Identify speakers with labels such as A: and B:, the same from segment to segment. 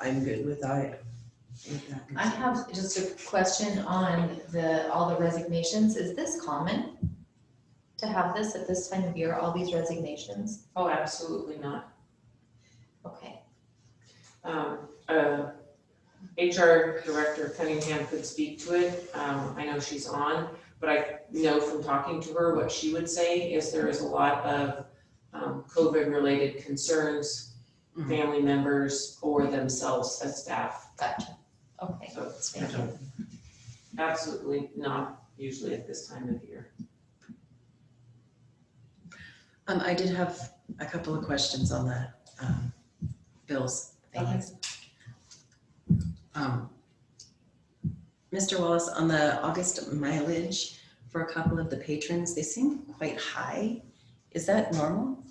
A: I'm good without it. With that
B: I have just a question on the, all the resignations. Is this common? To have this at this time of year, all these resignations?
C: Oh, absolutely not.
B: Okay,
C: Um, uh, HR Director Cunningham could speak to it. Um, I know she's on, but I know from talking to her, what she would say is there is a lot of um, COVID-related concerns,
A: Mhm.
C: family members or themselves as staff.
B: gotcha. Okay,
C: So
B: thank you.
C: absolutely not usually at this time of year.
A: Um, I did have a couple of questions on the, um, bills. things. Um, Mr. Wallace, on the August mileage for a couple of the patrons, they seem quite high. Is that normal?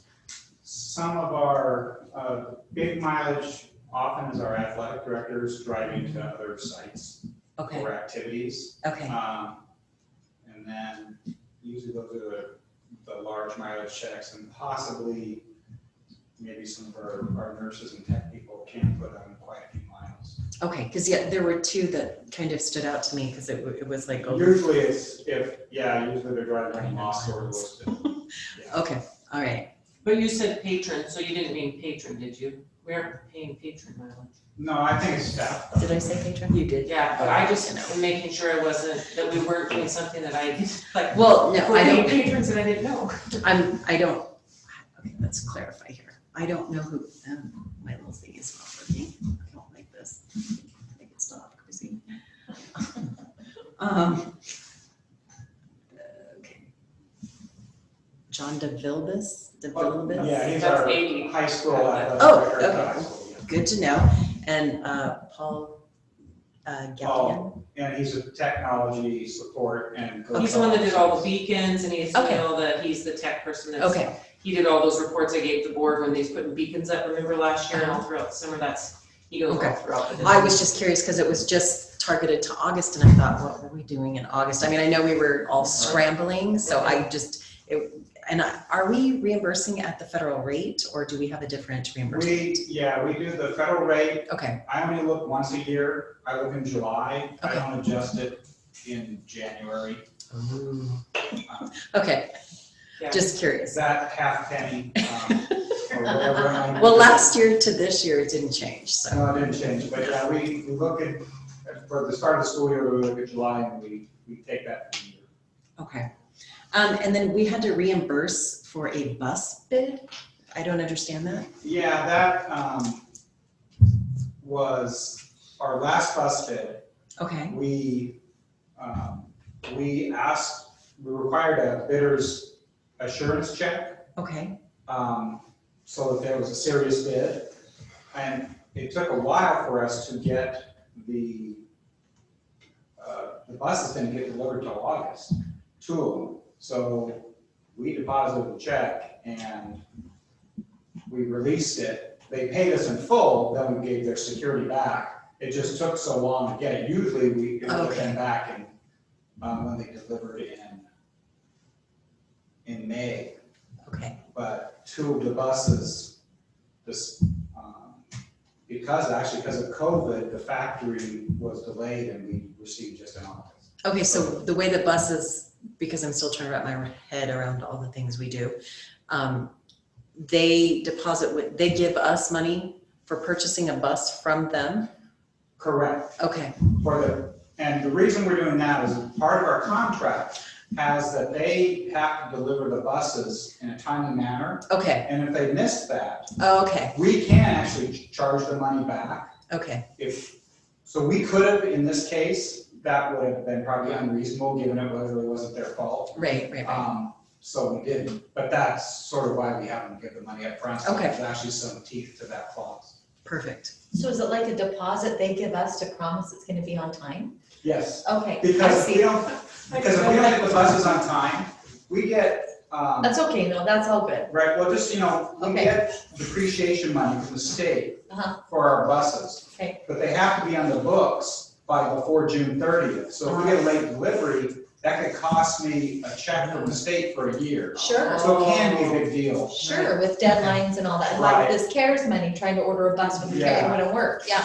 D: Some of our uh, big mileage often is our athletic directors driving to other sites
A: Okay,
D: or activities.
A: okay,
D: Um, And then usually those are the, the large mileage checks and possibly maybe some of our, our nurses and tech people can put on quite a few miles.
A: okay, because yeah, there were two that kind of stood out to me because it, wa- it was like over
D: Usually it's if, yeah, usually they're driving like Moss or Lewiston.
A: Okay, all right.
C: But you said patron, so you didn't mean patron, did you? We aren't paying patron mileage.
D: No, I think it's staff.
A: Did I say patron? You did.
C: Yeah, but I just am making sure I wasn't, that we weren't doing something that I, like,
A: Well, no, I don't,
C: patrons and I didn't know.
A: I'm, I don't, okay, let's clarify here. I don't know who, um, my little thing is not working. I don't like this. I think it's not crazy. Um, okay. John DeVilbiss, DeVilbiss?
D: Yeah, he's
C: That's
D: our
C: eighty.
D: high school athletic
A: Oh,
D: director at
A: okay.
D: high school, yeah.
A: Good to know. And, uh, Paul, uh, Gallion?
D: and he's a technology support and.
C: He's the one that did all the beacons and he's, you
A: Okay.
C: know, that he's the tech person that's.
A: Okay,
C: He did all those reports I gave the board when they's putting beacons up, remember last year and all throughout the summer, that's, he goes all
A: Uh-huh. Okay.
C: throughout the.
A: I was just curious because it was just targeted to August and I thought, what were we doing in August? I mean, I know we were all scrambling, so I just, it, and I- are we reimbursing at the federal rate or do we have a different
D: We,
A: reimbursement?
D: yeah, we do the federal rate,
A: Okay,
D: I only look once a year, I look in July, I
A: Okay.
D: don't adjust it in January.
A: okay,
C: Yeah.
A: just
D: Is
A: curious.
D: that half penny, um, or whatever? I-
A: Well, last year to this year, it didn't change, so,
D: No, it didn't change, but yeah, we, we look at, for the start of the school year, we look at July and we, we take that from the year.
A: okay. Um, and then we had to reimburse for a bus bid? I don't understand that.
D: Yeah, that, um, was our last bus bid,
A: Okay,
D: we, um, we asked, we required a bidder's assurance check,
A: okay,
D: um, so that there was a serious bid. And it took a while for us to get the, uh, the buses didn't get delivered till August, two of them. So we deposited the check and we released it. They paid us in full, then we gave their security back. It just took so long to get it. Usually we give
A: Okay.
D: them back and, um, when they delivered in, in May
A: okay,
D: but two of the buses, this, um, because, actually, because of COVID, the factory was delayed and we received just an office.
A: Okay, so the way that buses, because I'm still trying to wrap my head around all the things we do, um, they deposit, with- they give us money for purchasing a bus from them?
D: Correct,
A: Okay,
D: for the, and the reason we're doing that is part of our contract has that they have to deliver the buses in a timely manner,
A: okay, Oh,
D: and if they miss that,
A: okay,
D: we can actually ch- charge the money back.
A: okay,
D: If, so we could have, in this case, that would have been probably unreasonable, given it really wasn't their fault.
A: right, right, right.
D: Um, so we didn't, but that's sort of why we haven't given the money up front. so
A: Okay.
D: There's actually some teeth to that clause.
A: Perfect.
B: So is it like a deposit they give us to promise it's gonna be on time?
D: Yes,
B: Okay, I
D: because if we
B: see.
D: don't, because if we don't get the buses on time, we get, um,
B: That's okay, no, that's all good.
D: right, well, just, you know, we
B: Okay.
D: get depreciation money from the state
B: Uh-huh.
D: for our buses.
B: Okay.
D: But they have to be on the books by before June thirtieth. So if we get a late delivery, that could cost me a check from the state for a year.
B: Sure,
D: So it can be a big deal.
B: sure, with deadlines and all that. Like
D: Right.
B: this CARES money, trying to order a bus when the
D: Yeah.
B: it wouldn't work, yeah.